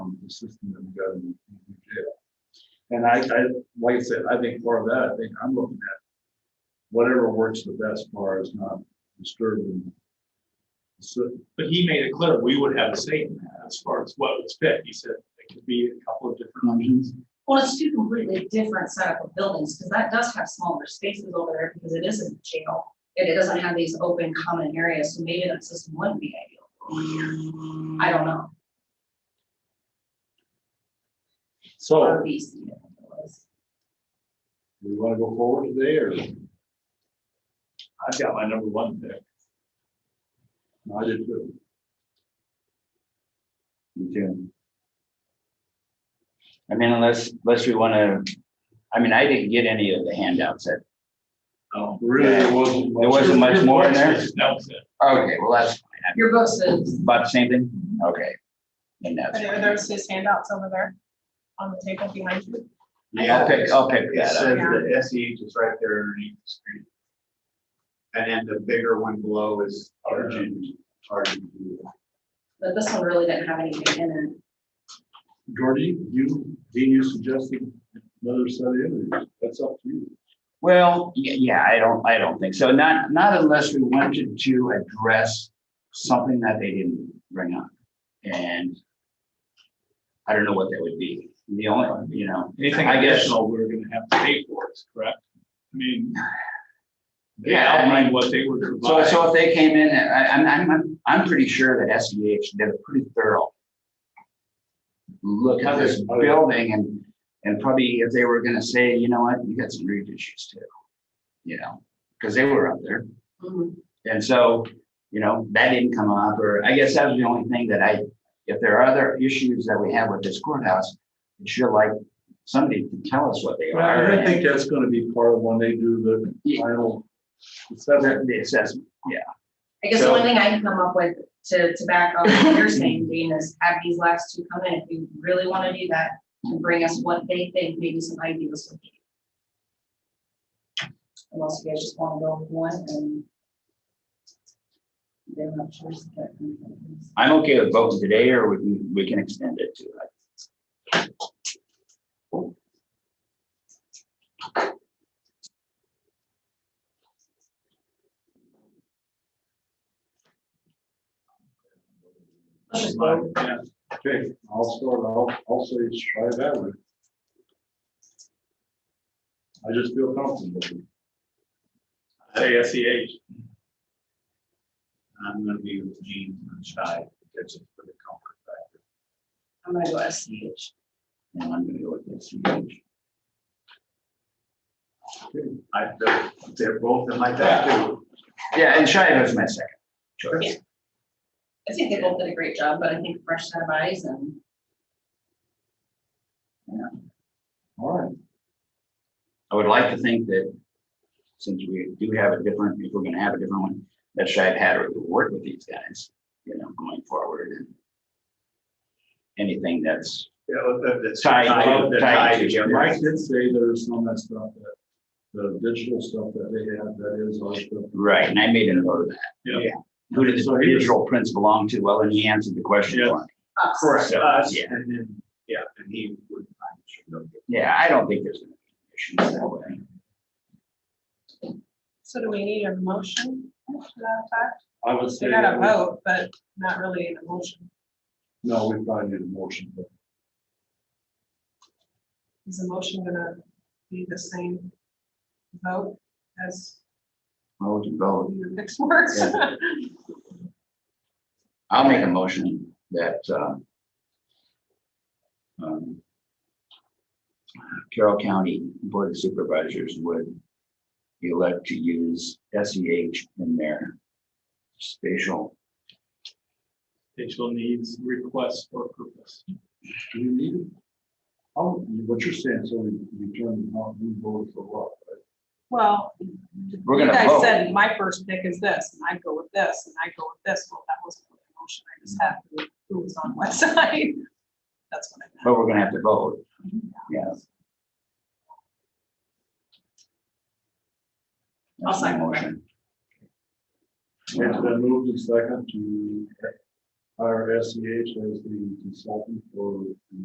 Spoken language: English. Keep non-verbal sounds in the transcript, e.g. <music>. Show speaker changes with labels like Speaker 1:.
Speaker 1: system that we got in in jail. And I, I, like I said, I think part of that, I think I'm looking at whatever works the best far as not disturbing. the city.
Speaker 2: But he made it clear we would have a say in that as far as what was fit. He said it could be a couple of different options.
Speaker 3: Well, it's two completely different setup of buildings, because that does have smaller spaces over there, because it isn't a jail. And it doesn't have these open common areas, so maybe that system wouldn't be ideal. for one year. I don't know.
Speaker 1: So,
Speaker 3: Or these, you know, it was.
Speaker 1: do we want to go forward today or?
Speaker 2: I've got my number one pick.
Speaker 1: No, I did too.
Speaker 4: You too. I mean, unless, unless we wanna, I mean, I didn't get any of the handouts that,
Speaker 2: Um,
Speaker 1: Really, there wasn't.
Speaker 4: Oh, There wasn't much
Speaker 2: your
Speaker 4: more in
Speaker 2: voice
Speaker 4: there?
Speaker 2: is- That was it.
Speaker 4: okay, well, that's
Speaker 3: Your uh, book says,
Speaker 4: about the same thing, okay. And that's,
Speaker 5: Are there those just handouts over there on the table behind you?
Speaker 4: I'll pick, I'll pick
Speaker 6: It
Speaker 4: that up,
Speaker 6: says the
Speaker 1: E
Speaker 6: SEH is right there underneath the screen. And then the bigger one below is urgent, urgent.
Speaker 3: that this one really didn't have anything in it.
Speaker 1: Gordy, you, Dean, you suggesting another set of interviews, that's up to you.
Speaker 4: well, y- yeah, I don't, I don't think so, not, not unless we wanted to address something that they didn't bring up, and I don't know what that would be, the only, you know,
Speaker 2: Anything
Speaker 4: I guess-
Speaker 2: additional, we're gonna have to pay for it, correct? I mean. They
Speaker 4: Yeah, I mean-
Speaker 2: outlined what they would
Speaker 4: So,
Speaker 2: provide.
Speaker 4: so if they came in, I, I'm, I'm, I'm, I'm pretty sure that SEH did a pretty thorough look at this
Speaker 1: Oh,
Speaker 4: building and, and probably if they were gonna say, you know what, you got some roof issues too. You know, because they were up there.
Speaker 3: Mhm.
Speaker 4: And so, you know, that didn't come up, or I guess that was the only thing that I, if there are other issues that we have with this courthouse, I'd sure like somebody to tell us what they
Speaker 1: Well, I
Speaker 4: are.
Speaker 1: don't
Speaker 4: and
Speaker 1: think that's gonna be part of when they do the
Speaker 4: Yeah.
Speaker 1: final.
Speaker 4: The
Speaker 1: assessment.
Speaker 4: the assessment,
Speaker 3: I guess the
Speaker 4: So-
Speaker 3: only thing I can come up with to, to back up what you're saying, Dean, is have these last two come in, if you really wanna do that, and bring us what they think, maybe some ideas would be. Unless you guys just wanna go with one and. They're not sure.
Speaker 4: I'm okay with voting today, or we can, we can extend it to, uh,
Speaker 1: Yeah, Okay, I'll start, I'll, I'll say it's try that way. I just feel comfortable. with it.
Speaker 2: Say
Speaker 6: E
Speaker 2: SEH.
Speaker 6: I'm gonna be with Gene and Shai, that's it for the comfort factor.
Speaker 3: I'm gonna go SCH.
Speaker 4: and I'm gonna go with this. huge.
Speaker 6: I, they're- they're both in my top two.
Speaker 4: Yeah, and Shia was my second choice.
Speaker 3: I think they both did a great job, but I think fresh set of eyes and.
Speaker 1: All right,
Speaker 4: I would like to think that since we do have a different, if we're gonna have a different one, that Shia had to work with these guys, you know, going forward and anything that's,
Speaker 6: Yeah, the- the-
Speaker 4: Tied,
Speaker 6: the
Speaker 4: tied
Speaker 6: tie-
Speaker 4: together.
Speaker 1: Mike did say there's some of that stuff that, the digital stuff that they have, that is our stuff.
Speaker 4: right, and I made a note of that.
Speaker 2: Yeah.
Speaker 4: Who did
Speaker 1: So
Speaker 4: the
Speaker 1: he was-
Speaker 4: digital prints belong to? Well, and he answered the question
Speaker 2: Yeah.
Speaker 4: for me.
Speaker 3: us.
Speaker 6: Correct, us,
Speaker 4: Yeah.
Speaker 6: and then, yeah, and he would, I'm sure they'll get
Speaker 4: Yeah, I don't think there's gonna be issues that way.
Speaker 5: So do we need a motion? to that effect?
Speaker 1: I would say.
Speaker 5: We got a
Speaker 1: that we-
Speaker 5: vote, but not really an emotion.
Speaker 1: No, we probably need a motion, but
Speaker 5: Is the motion gonna be the same vote as
Speaker 4: Well, we can vote.
Speaker 5: your <laughs> next words?
Speaker 4: Yeah. I'll make a motion that, uh, um, Carroll County Board of Supervisors would elect to use SEH in their spatial,
Speaker 2: Digital needs, requests or purpose.
Speaker 1: do you need it? Oh, what you're saying, so we, we turn, the vote- we vote for what? right?
Speaker 5: Well,
Speaker 4: We're
Speaker 5: you
Speaker 4: gonna
Speaker 5: guys
Speaker 4: vote.
Speaker 5: said my first pick is this, and I go with this, and I go with this. Well, that wasn't really a motion. I just had who- who was on what <laughs> side. That's what I meant.
Speaker 4: but we're gonna have to vote. Yeah.
Speaker 3: I'll
Speaker 4: That's my
Speaker 3: second that.
Speaker 4: motion.
Speaker 1: It's been E moved and second to hire SEH as the consultant for